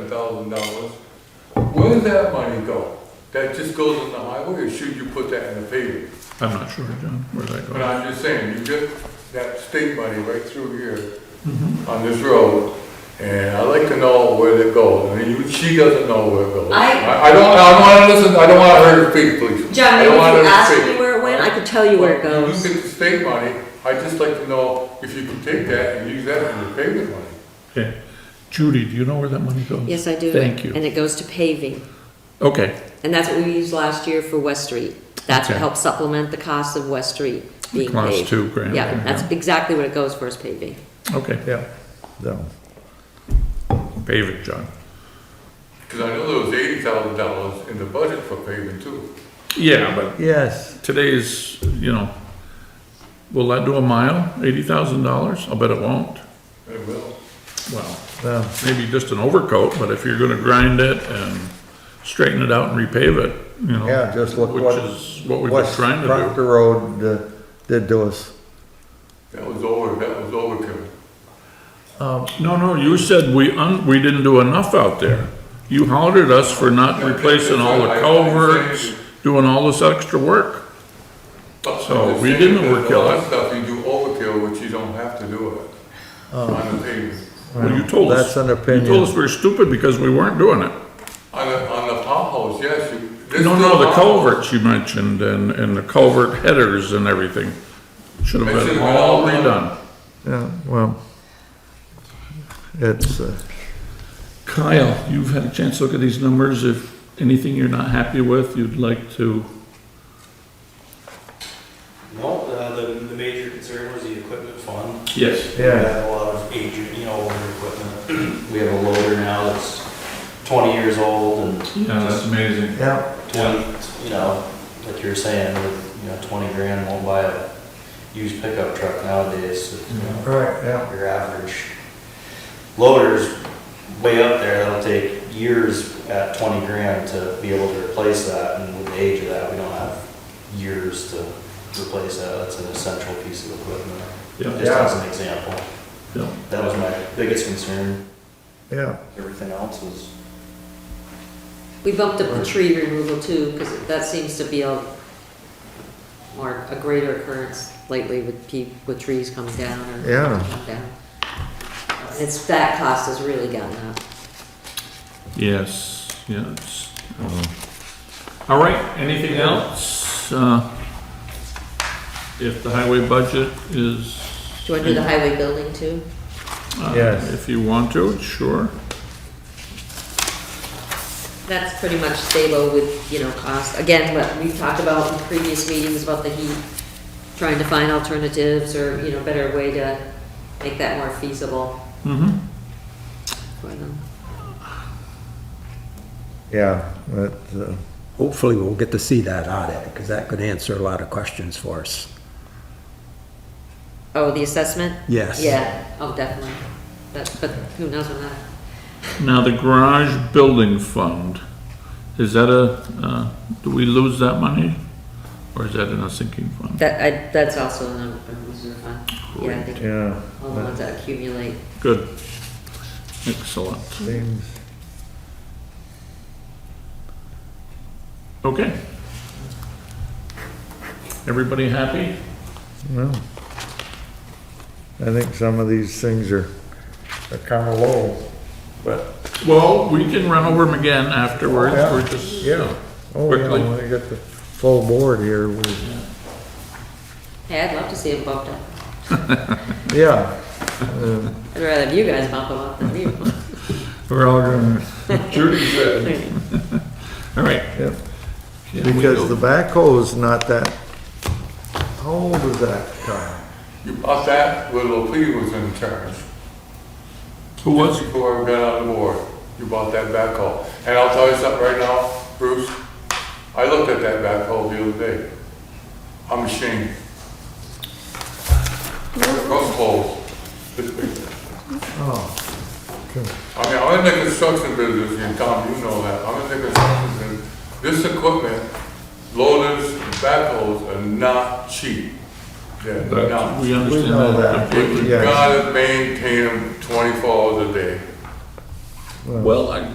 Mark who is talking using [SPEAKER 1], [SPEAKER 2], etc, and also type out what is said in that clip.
[SPEAKER 1] thousand dollars, where does that money go? That just goes in the highway, or should you put that in the paving?
[SPEAKER 2] I'm not sure, John, where that
[SPEAKER 1] But
[SPEAKER 2] goes.
[SPEAKER 1] I'm just saying, you get that state money right through here on this road, and I'd like to know where it goes, and you, she doesn't know where it goes.
[SPEAKER 3] I-
[SPEAKER 1] I don't, I don't wanna listen, I don't wanna hurt her feet, please.
[SPEAKER 3] John,
[SPEAKER 1] I
[SPEAKER 3] maybe
[SPEAKER 1] don't
[SPEAKER 3] if
[SPEAKER 1] wanna
[SPEAKER 3] you
[SPEAKER 1] hurt her
[SPEAKER 3] asked
[SPEAKER 1] feet.
[SPEAKER 3] me where it went, I could tell you where it
[SPEAKER 1] Well,
[SPEAKER 3] goes.
[SPEAKER 1] You get the state money, I'd just like to know if you can take that and use that for your paving money.
[SPEAKER 2] Okay. Judy, do you know where that money goes?
[SPEAKER 3] Yes, I do.
[SPEAKER 2] Thank you.
[SPEAKER 3] And it goes to paving.
[SPEAKER 2] Okay,
[SPEAKER 3] And that's what we used last year for West Street. That's what
[SPEAKER 2] Okay.
[SPEAKER 3] helped supplement the cost of West Street being
[SPEAKER 2] Cost
[SPEAKER 3] paved.
[SPEAKER 2] two grand,
[SPEAKER 3] Yeah,
[SPEAKER 2] yeah.
[SPEAKER 3] that's exactly what it goes for is paving.
[SPEAKER 2] okay.
[SPEAKER 4] Yeah, no.
[SPEAKER 2] Pave it, John.
[SPEAKER 1] Because I know there was eighty thousand dollars in the budget for paving too.
[SPEAKER 2] Yeah, but
[SPEAKER 4] Yes,
[SPEAKER 2] today's, you know, will that do a mile? Eighty thousand dollars? I'll bet it won't.
[SPEAKER 1] It will.
[SPEAKER 2] Well,
[SPEAKER 4] well,
[SPEAKER 2] maybe just an overcoat, but if you're gonna grind it and straighten it out and repave it, you know.
[SPEAKER 4] yeah, just look
[SPEAKER 2] Which
[SPEAKER 4] what.
[SPEAKER 2] is what we've been
[SPEAKER 4] West
[SPEAKER 2] trying to do.
[SPEAKER 4] Proctor Road uh, did to us.
[SPEAKER 1] That was over, that was overkill.
[SPEAKER 2] No, no, you said we un, we didn't do enough out there. You hollered at us for not replacing all the culverts, doing all this extra work.
[SPEAKER 1] But
[SPEAKER 2] So,
[SPEAKER 1] I'm just
[SPEAKER 2] we
[SPEAKER 1] saying
[SPEAKER 2] didn't
[SPEAKER 1] there's A
[SPEAKER 2] overkill
[SPEAKER 1] lot
[SPEAKER 2] it.
[SPEAKER 1] of stuff you do overkill, which you don't have to do it
[SPEAKER 2] Oh.
[SPEAKER 1] on the paving.
[SPEAKER 2] Well, you told us.
[SPEAKER 4] That's an
[SPEAKER 2] You told
[SPEAKER 4] opinion.
[SPEAKER 2] us we were stupid because we weren't doing it.
[SPEAKER 1] On the, on the potholes, yes, you. there's
[SPEAKER 2] No,
[SPEAKER 1] still
[SPEAKER 2] no, the
[SPEAKER 1] potholes.
[SPEAKER 2] culverts you mentioned and, and the culvert headers and everything should
[SPEAKER 1] They
[SPEAKER 2] have
[SPEAKER 1] should've
[SPEAKER 2] been
[SPEAKER 1] been
[SPEAKER 2] all
[SPEAKER 1] all done.
[SPEAKER 2] redone.
[SPEAKER 4] Yeah, well, it's, uh,
[SPEAKER 2] Kyle, you've had a chance to look at these numbers. If anything you're not happy with, you'd like to,
[SPEAKER 5] Well, uh, the, the major concern was the equipment fund.
[SPEAKER 2] yes,
[SPEAKER 4] Yeah.
[SPEAKER 5] We had a lot of aging, you know, older equipment. We have a loader now that's twenty years old and
[SPEAKER 2] yeah, that's amazing.
[SPEAKER 4] yeah,
[SPEAKER 5] twenty, you know, like you were saying, with, you know, twenty grand won't buy a used pickup truck nowadays. You know,
[SPEAKER 4] right, yeah.
[SPEAKER 5] Your average loader's way up there. That'll take years at twenty grand to be able to replace that. And with the age of that, we don't have years to replace that. That's an essential piece of equipment.
[SPEAKER 2] Yeah,
[SPEAKER 5] Just as an example,
[SPEAKER 2] yeah.
[SPEAKER 5] that was my biggest concern.
[SPEAKER 4] Yeah,
[SPEAKER 5] Everything else is.
[SPEAKER 3] We bumped up the tree removal too, because that seems to be a more, a greater occurrence lately with pe, with trees coming down or.
[SPEAKER 4] Yeah.
[SPEAKER 3] coming down. It's, that cost has really gotten up.
[SPEAKER 2] Yes, yes. All right, anything else? Uh, If the highway budget is.
[SPEAKER 3] Do you want to do the highway building too?
[SPEAKER 2] Uh,
[SPEAKER 4] Yes.
[SPEAKER 2] If you want to, sure.
[SPEAKER 3] That's pretty much stable with, you know, cost. Again, what we've talked about in previous meetings about the heat, trying to find alternatives or, you know, better way to make that more feasible
[SPEAKER 2] Mm-hmm.
[SPEAKER 3] for them.
[SPEAKER 4] yeah, but, uh,
[SPEAKER 6] Hopefully, we'll get to see that audit, because that could answer a lot of questions for us.
[SPEAKER 3] Oh, the assessment?
[SPEAKER 6] Yes.
[SPEAKER 3] Yeah, oh, definitely. That's, but who knows on that?
[SPEAKER 2] Now, the garage building fund, is that a, uh, do we lose that money? Or is that in a sinking fund?
[SPEAKER 3] That, I, that's also a a reserve fund. Yeah, I think
[SPEAKER 4] yeah,
[SPEAKER 3] all the ones that accumulate.
[SPEAKER 2] Good. Excellent.
[SPEAKER 4] seems,
[SPEAKER 2] Okay. Everybody happy?
[SPEAKER 4] well. I think some of these things are, are kinda low, but,
[SPEAKER 2] Well, we can run over them again afterwards,
[SPEAKER 4] Yeah.
[SPEAKER 2] we're just, you
[SPEAKER 4] yeah.
[SPEAKER 2] know.
[SPEAKER 4] Oh, yeah,
[SPEAKER 2] Quickly.
[SPEAKER 4] when I get the full board here, we,
[SPEAKER 3] Hey, I'd love to see them bumped up.
[SPEAKER 4] yeah.
[SPEAKER 3] I'd rather have you guys bump them up than me.
[SPEAKER 4] We're all gonna.
[SPEAKER 2] Judy said. All right.
[SPEAKER 4] Yep.
[SPEAKER 2] Can we
[SPEAKER 4] Because
[SPEAKER 2] go-
[SPEAKER 4] the backhoe's not that, how old is that, Kyle?
[SPEAKER 1] You bought that when Lepre was in charge.
[SPEAKER 2] Who was,
[SPEAKER 1] Just Before I got on the board, you bought that backhoe. And I'll tell you something right now, Bruce, I looked at that backhoe the other day. I'm ashamed. They're Front poles.
[SPEAKER 4] Oh,
[SPEAKER 1] I mean, I'm in the construction business, and Tom, you know that, I'm in the construction business. This equipment, loaders, backhoes are not cheap. They're
[SPEAKER 2] that-
[SPEAKER 1] not.
[SPEAKER 2] we
[SPEAKER 4] We know
[SPEAKER 2] understand that
[SPEAKER 4] that.
[SPEAKER 2] completely.
[SPEAKER 1] You
[SPEAKER 4] Yeah.
[SPEAKER 1] gotta maintain them twenty-four hours a day.
[SPEAKER 2] Well, I